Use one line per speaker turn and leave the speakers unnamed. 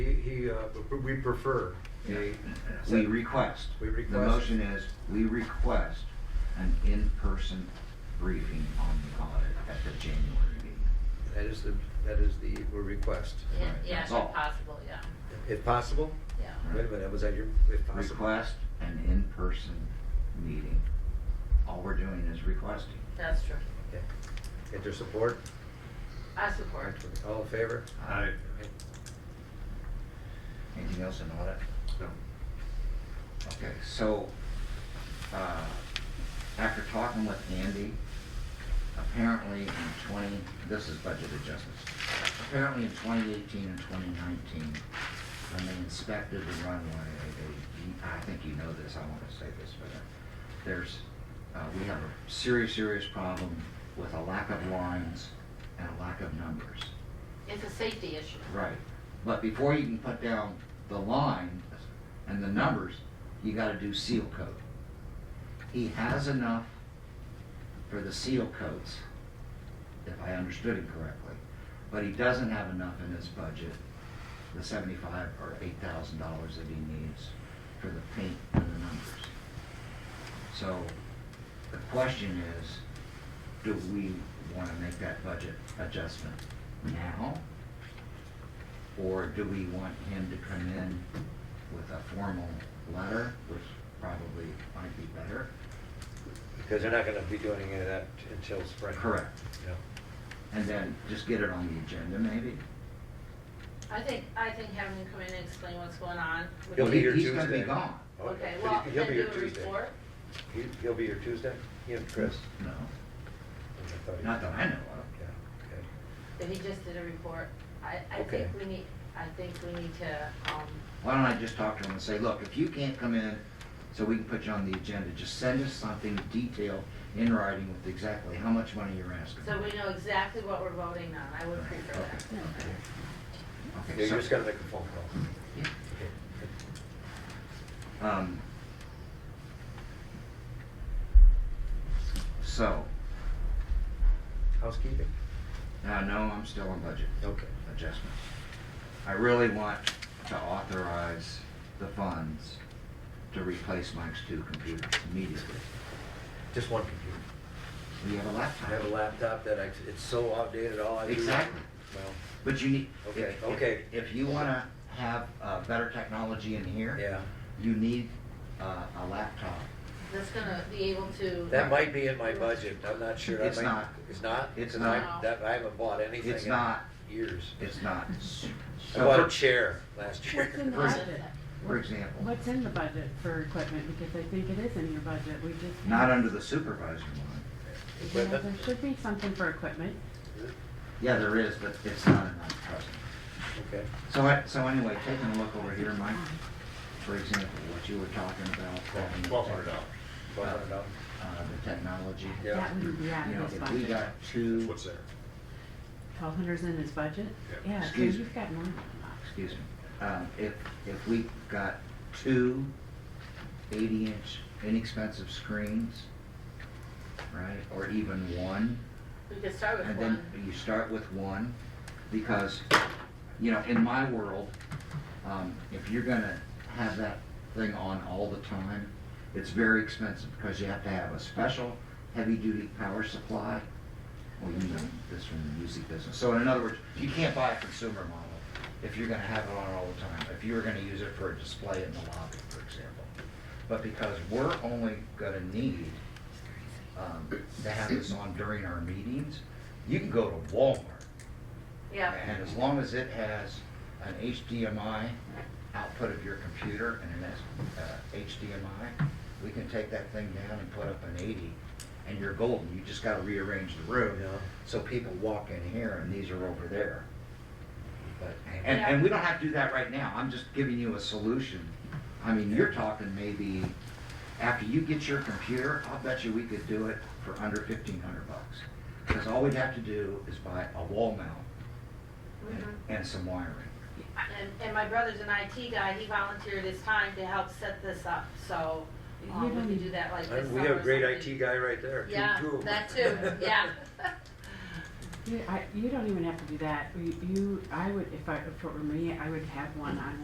He, he, uh, p- we prefer a.
We request.
We
The
request.
motion is, we request an in-person briefing on the audit at the January meeting.
That is the, that is the request.
Right,
Yeah, yeah, if
Oh.
that's all.
possible, yeah,
If possible,
yeah.
wait a minute, was that your, if possible?
Request an in-person meeting. All we're doing is requesting.
That's true.
Okay. Get your support?
I support.
All in favor?
Aye. Anything else in audit?
No.
Okay, so, uh, after talking with Andy, apparently in twenty, this is budget adjustments. Apparently in twenty eighteen and twenty nineteen, when they inspected the runway, they, I think you know this, I wanna say this, but uh, there's, uh, we have a serious, serious problem with a lack of lines and a lack of numbers.
It's a safety issue.
Right, but before you can put down the line and the numbers, you gotta do seal coat. He has enough for the seal coats, if I understood him correctly, but he doesn't have enough in his budget, the seventy-five or eight thousand dollars that he needs for the paint and the numbers. So, the question is, do we wanna make that budget adjustment now? Or do we want him to come in with a formal letter, which probably might be better?
Because they're not gonna be doing any of that until spring.
Correct.
Yeah.
And then just get it on the agenda maybe?
I think, I think having him come in and explain what's going on. would
He'll be here
He's gonna be
Tuesday. Oh,
gone.
Okay,
But
well,
he- He'll
then
be here
do a
Tuesday.
report.
He, he'll be here Tuesday? You and Chris? Oh,
No,
I thought he-
not that I know of.
Yeah, okay.
If he just did a report, I, I
Okay.
think we need, I think we need to, um,
Why don't I just talk to him and say, look, if you can't come in, so we can put you on the agenda, just send us something detailed in writing with exactly how much money you're asking.
so we know exactly what we're voting on. I would
Okay,
prefer that.
Okay,
Yeah,
so-
you're just gonna make a phone call.
Yeah.
Okay.
Um, So,
Housekeeping?
uh, no, I'm still on budget
Okay.
adjustments. I really want to authorize the funds to replace Mike's two computers immediately.
Just one computer.
We have a
I have a
laptop,
laptop that I, it's so outdated, all I do.
Exactly.
Well,
but you need.
Okay,
if- if-
okay.
If you want to have uh, better technology in here.
yeah,
You need uh, a laptop.
That's gonna be able to.
that might be in my budget, I'm not sure. I
It's
might-
not.
It's not?
It's
'Cause I-
not.
That, I haven't bought anything
It's
in
not.
years.
It's not. s-
I
so
bought
for-
a chair last year.
What's in the
Right.
budget?
For example.
What's in the budget for equipment, because I think it is in your budget, we just.
Not under the supervisor line.
Yeah,
Equipment.
There should be something for equipment.
Yeah, there is, but it's not in my trust.
Okay,
So I, so anyway, taking a look over here, Mike, for example, what you were talking about. having the
Twelve hundred dollars.
tech-
twelve hundred dollars.
Uh, the technology.
Yeah.
That wouldn't be out
You know,
of his
if we
budget.
got two,
What's there?
Twelve hundred's in his budget?
Yeah.
Yeah, so
Excuse-
you've got more than
excuse me, um, if, if we got two eighty-inch inexpensive screens, right, or even one,
We could start with
And then
one.
you start with one, because, you know, in my world, um, if you're gonna have that thing on all the time, it's very expensive, because you have to have a special heavy-duty power supply. Well, you know this from the music business, so in other words, you can't buy a consumer model if you're gonna have it on all the time, if you were gonna use it for a display in the lobby, for example. But because we're only gonna need um, to have this on during our meetings, you can go to Walmart.
Yeah,
And as long as it has an HDMI output of your computer and an S- uh, HDMI, we can take that thing down and put up an 80, and you're golden. You just got to rearrange the room.
Yeah.
So people walk in here, and these are over there. But, and,
Yeah.
and we don't have to do that right now. I'm just giving you a solution. I mean, you're talking maybe after you get your computer, I'll bet you we could do it for under 1,500 bucks. Because all we'd have to do is buy a wall mount
Mhm.
and some wiring.
and, and my brother's an IT guy, he volunteered his time to help set this up, so, um, we can do that like this
We
summer
have a
or
great
something.
IT guy right there, two, two
Yeah,
of them.
that too, yeah.
You, I, you don't even have to do that. You, you- I would, if I, if it were me, I would have one on